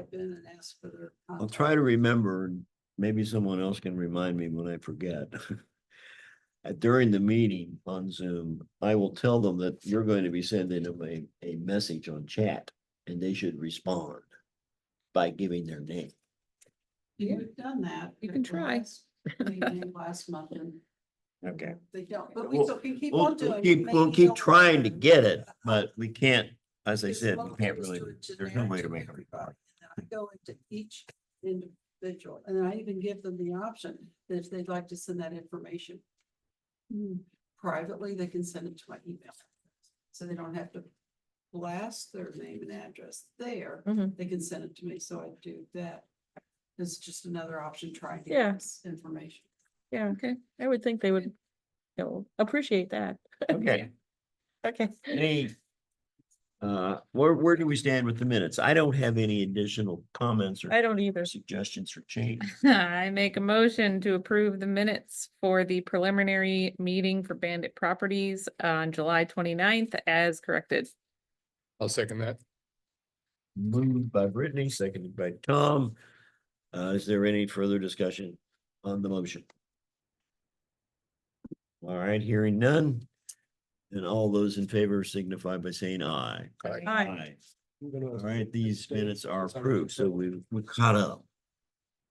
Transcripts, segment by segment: step in and ask for their. I'll try to remember, and maybe someone else can remind me when I forget. Uh, During the meeting on Zoom, I will tell them that you're going to be sending them a, a message on chat and they should respond by giving their name. You've done that. You can at the try. last meeting Last month and. Okay. They don't, but we We'll- still can keep We'll, on doing. we'll it, keep, making we'll keep sure trying to we're- get it, but we can't, as I It's said, we local, can't just really, do it there's no generic way to to make it. everybody. And I go into each individual, and I even give them the option that if they'd like to send that information Hmm. privately, they can send it to my email. So they don't have to blast their name and address there. Mhm. They can send it to me, so I do that. It's just another option trying to Yeah. get this information. Yeah, okay. I would think they would, you know, appreciate that. Okay, Okay. any? Uh, where, where do we stand with the minutes? I don't have any additional comments or I don't either. suggestions for change. I make a motion to approve the minutes for the preliminary meeting for Bandit Properties on July 29th as corrected. I'll second that. Moved by Brittany, seconded by Tom. Uh, is there any further discussion on the motion? All right, hearing none. And all those in favor signify by saying aye. Aye. All right, these minutes are approved, so we, we caught up.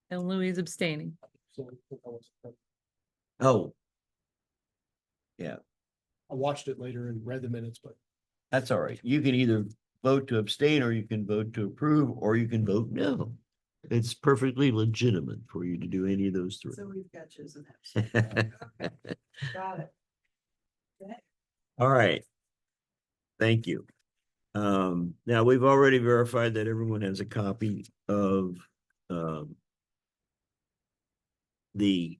And Louis is abstaining. Oh, I watched it later and read the minutes, but that's all right. You can either vote to abstain or you can vote to approve, or you can vote no. It's perfectly legitimate for you to do any of those So three. we've got chosen that. Okay, Got it. All right. Thank you. Um, now we've already verified that everyone has a copy of, um, the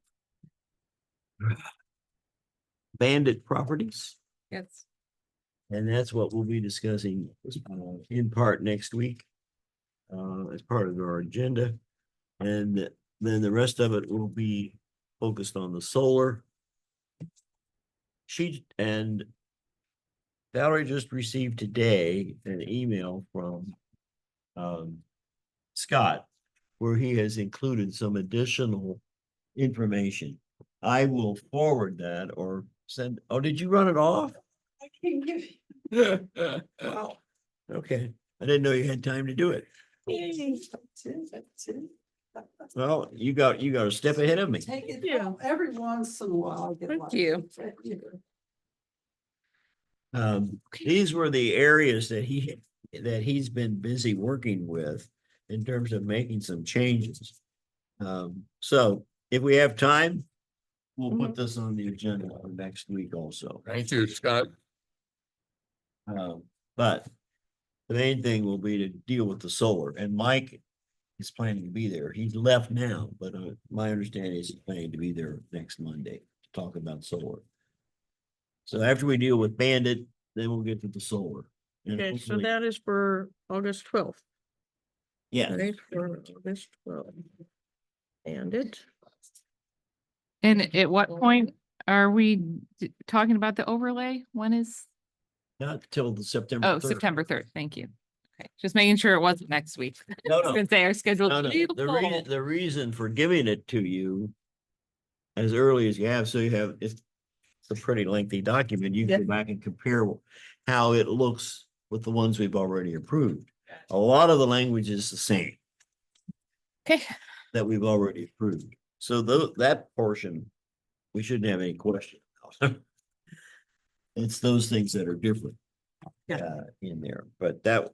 bandit properties, Yes. and that's what we'll be discussing uh, in part next week uh, as part of our agenda. And then the rest of it will be focused on the solar. She and Valerie just received today an email from um, Scott, where he has included some additional information. I will forward that or send, oh, did you run it off? I can give you. Wow, okay. I didn't know you had time to do it. Yay. That's it, that's it. Well, you got, you got a step ahead of me. Take it, you. well, every once in a while. I get Thank lucky. you. Thank you. Um, these were the areas that he, that he's been busy working with in terms of making some changes. Um, so if we have time, we'll Mm-hmm. put this on the agenda for next week also. thank you, Scott. Um, but the main thing will be to deal with the solar and Mike is planning to be there. He's left now, but uh, my understanding is he's planning to be there next Monday to talk about solar. So after we deal with Bandit, then we'll get to the solar. And Okay, so hopefully- that is for August twelfth, Yeah, right? For August twelfth. And it. And at what point are we d- talking about the overlay? When is? not till the September. Oh, 3rd. September third. Thank you. Okay, just making sure it wasn't next week. No, I was no, gonna say our schedule's no, no. The reason, beautiful. the reason for giving it to you as early as you have, so you have, it's it's a pretty lengthy document. You can go back and compare how it looks with the ones we've already approved. A lot of the language is the same. Okay, that we've already approved. So tho- that portion, we shouldn't have any question. about. It's those things that are different. Yeah. uh, In there, but that,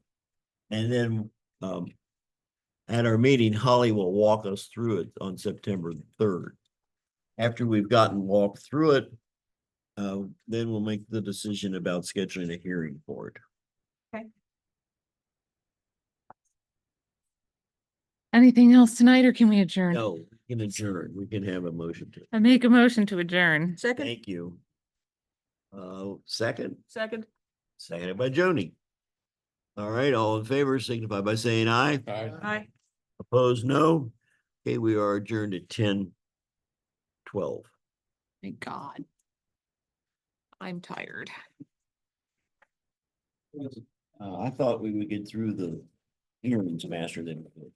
and then, um. At our meeting, Holly will walk us through it on September third. After we've gotten walked through it. Uh, then we'll make the decision about scheduling a hearing for it. anything else tonight or can we adjourn? No, Oh, we can adjourn. We can have a motion to, I make a motion to adjourn. Second, thank you. Uh, second? second. Seconded by Joni. All right, all in favor signify by saying aye. Aye. Hi. Opposed, no. Okay, we are adjourned at ten twelve. Thank God. I'm tired. Uh, I thought we would get through the hearings faster than. we did.